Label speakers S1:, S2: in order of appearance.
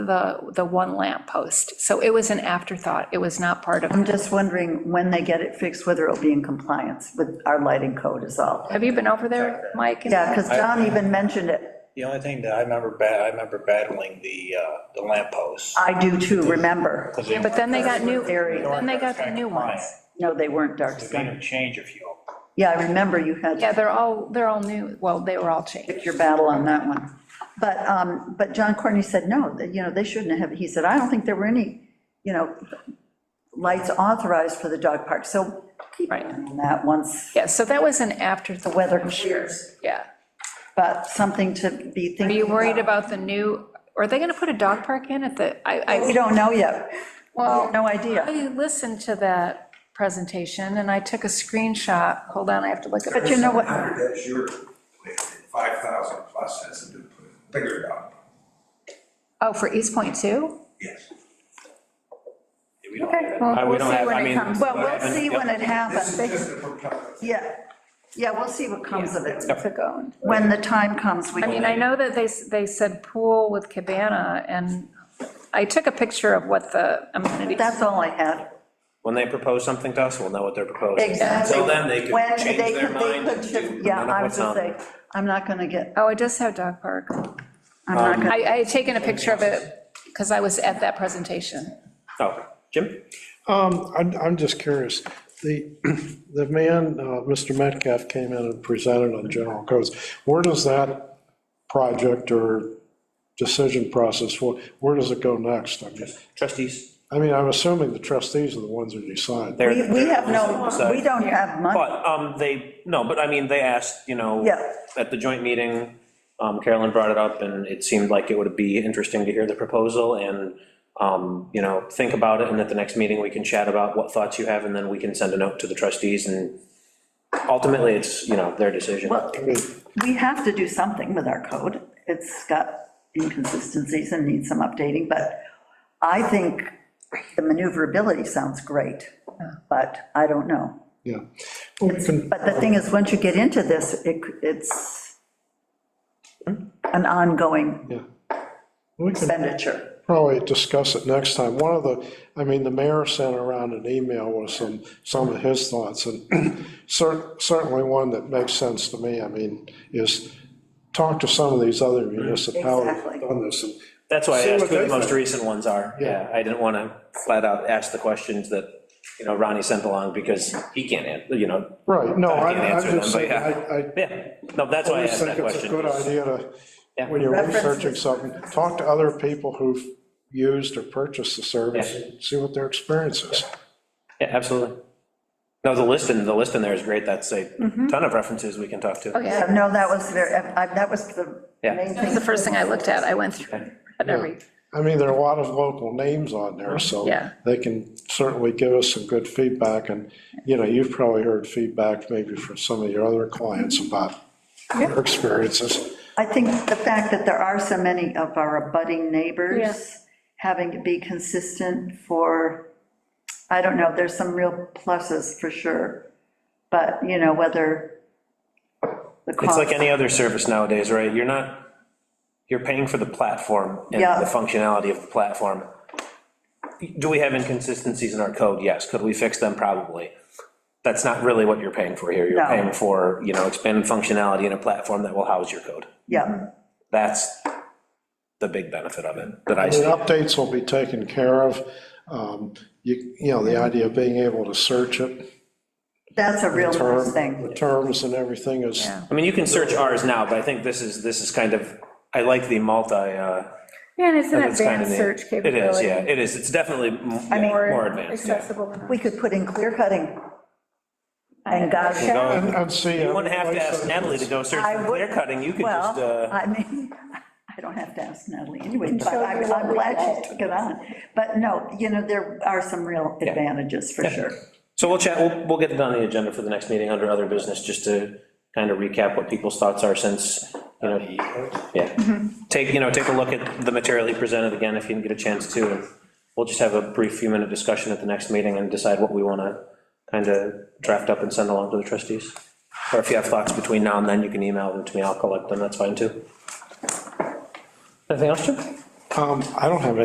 S1: the, the one lamp post. So it was an afterthought. It was not part of,
S2: I'm just wondering when they get it fixed, whether it'll be in compliance with our lighting code is all.
S1: have you been over there, Mike?
S2: Yeah, because John even mentioned it.
S3: The only thing that I remember, ba- I remember battling the, uh, the lampposts.
S2: I do too, remember.
S3: 'cause they
S1: But then they got new,
S2: Very-
S1: then they got the new ones.
S2: No, they weren't dark
S3: They're
S2: sky.
S3: gonna change a few.
S2: Yeah, I remember you had.
S1: Yeah, they're all, they're all new. Well, they were all changed.
S2: pick your battle on that one. But, um, but John Courtney said, no, that, you know, they shouldn't have, he said, I don't think there were any, you know, lights authorized for the dog park, so keep
S1: Right.
S2: on that once
S1: Yeah, so that was an afterthought.
S2: the weather clears,
S1: Yeah.
S2: but something to be
S1: Are
S2: thinking.
S1: you worried about the new, are they going to put a dog park in at the, I, I.
S2: We don't know yet.
S1: Well,
S2: No idea.
S1: I listened to that presentation and I took a screenshot. Hold on, I have to look at it.
S2: But you know what,
S4: That's your, five thousand plus has to do, figure it out,
S1: Oh, for East Point too?
S4: yes.
S3: We don't
S1: Okay,
S3: have it.
S1: well,
S3: I- we
S1: we'll
S3: don't
S1: see
S3: have-
S1: when
S3: I
S1: it
S3: mean,
S1: comes.
S2: well, we'll see when it
S4: This is
S2: happens.
S4: just a proposal.
S2: Yeah, yeah, we'll see what comes of it.
S1: To go and-
S2: When the time comes, we
S1: I mean,
S2: can,
S1: I know that they, s- they said pool with cabana and I took a picture of what the amenities.
S2: that's all I had.
S3: When they propose something to us, we'll know what they're proposing.
S2: Exactly.
S3: Until then, they
S2: When
S3: could change
S2: they
S3: their
S2: could- they
S3: mind.
S2: could
S3: and
S2: shift-
S3: do
S2: Yeah,
S3: none of
S2: I was
S3: what's
S2: just
S3: on
S2: saying,
S3: there.
S2: I'm not gonna get,
S1: Oh, it does have dog park.
S2: I'm not gonna.
S1: Um, I, I had taken a picture of it because I was at that presentation.
S3: Oh, Jim?
S5: Um, I'm, I'm just curious, the, the man, uh, Mr. Metcalf came in and presented on general codes. Where does that project or decision process, where, where does it go next? I mean,
S3: Trustees?
S5: I mean, I'm assuming the trustees are the ones who decide.
S3: They're-
S2: We, we have no,
S3: So-
S2: we don't have money.
S3: But, um, they, no, but I mean, they asked, you know.
S2: Yeah.
S3: At the joint meeting, um, Carolyn brought it up, and it seemed like it would be interesting to hear the proposal and, um, you know, think about it, and at the next meeting, we can chat about what thoughts you have, and then we can send a note to the trustees, and ultimately, it's, you know, their decision.
S2: Well,
S5: I mean,
S2: we have to do something with our code. It's got inconsistencies and needs some updating, but I think the maneuverability sounds great, but I don't know.
S5: Yeah. Well, we can-
S2: But the thing is, once you get into this, it, it's an ongoing
S5: yeah. We can
S2: expenditure.
S5: probably discuss it next time. One of the, I mean, the mayor sent around an email with some, some of his thoughts, and cer- certainly one that makes sense to me, I mean, is talk to some of these other municipalities
S2: Exactly.
S5: on this, and
S3: That's why I
S5: See
S3: asked
S5: what
S3: who the
S5: they
S3: most
S5: think.
S3: recent ones are. Yeah,
S5: Yeah.
S3: I didn't want to flat out ask the questions that, you know, Ronnie sent along, because he can't, an- you know.
S5: Right, no,
S3: I
S5: I,
S3: can
S5: I'm
S3: answer them,
S5: just
S3: but
S5: saying,
S3: yeah.
S5: I,
S3: Yeah, no, that's
S5: I
S3: why I
S5: always
S3: asked that
S5: think it's
S3: question.
S5: a good idea to,
S3: Yeah.
S5: when you're
S2: References.
S5: researching something, talk to other people who've used or purchased the service,
S3: Yeah.
S5: and see what their experience is.
S3: Yeah, absolutely. No, the list in, the list in there is great, that's a ton of references we can talk to.
S1: Oh, yeah.
S2: No, that was very, I- that was the
S3: Yeah.
S2: main
S1: That's
S2: thing.
S1: the first thing I looked at. I went through and read every,
S5: I mean, there are a lot of local names on there, so
S1: Yeah.
S5: they can certainly give us some good feedback, and, you know, you've probably heard feedback maybe from some of your other clients about their experiences.
S2: I think the fact that there are so many of our abutting
S1: Yeah.
S2: neighbors having to be consistent for, I don't know, there's some real pluses for sure. But, you know, whether the
S3: It's
S2: cost.
S3: like any other service nowadays, right? You're not, you're paying for the platform and
S2: Yeah.
S3: the functionality of the platform. Do we have inconsistencies in our code? Yes. Could we fix them? Probably. That's not really what you're paying for here. You're
S2: No.
S3: paying for, you know, expanded functionality in a platform that will house your code.
S2: Yeah,
S3: That's the big benefit of it that I
S5: The
S3: see.
S5: updates will be taken care of, um, you, you know, the idea of being able to search it,
S2: that's a real nice
S5: term,
S2: thing.
S5: the terms and everything is,
S3: I mean, you can search ours now, but I think this is, this is kind of, I like the multi, uh,
S6: Yeah, and it's an
S3: It's kind of
S6: advanced
S3: neat.
S6: search capability.
S3: It is, yeah, it is, it's definitely m- yeah, more advanced. yeah.
S6: Accessible than.
S2: We could put in clear cutting. And gosh,
S5: and, and see.
S3: You wouldn't have to ask Natalie to go search
S2: I
S3: for
S2: would-
S3: clear cutting, you could just,
S2: well,
S3: uh,
S2: I mean, I don't have to ask Natalie anyway, but
S6: show you
S2: I'm
S6: what
S2: I'm
S6: we
S2: glad
S6: had.
S2: she took it on. But no, you know, there are some real advantages for sure.
S3: so we'll chat, we'll, we'll get it on the agenda for the next meeting under other business, just to kind of recap what people's thoughts are since, you know, yeah. Take, you know, take a look at the material he presented again, if you didn't get a chance to, and we'll just have a brief few-minute discussion at the next meeting and decide what we want to kind of draft up and send along to the trustees. Or if you have thoughts between now and then, you can email them to me, I'll collect them, that's fine too. Anything else, Jim?
S5: Um, I don't have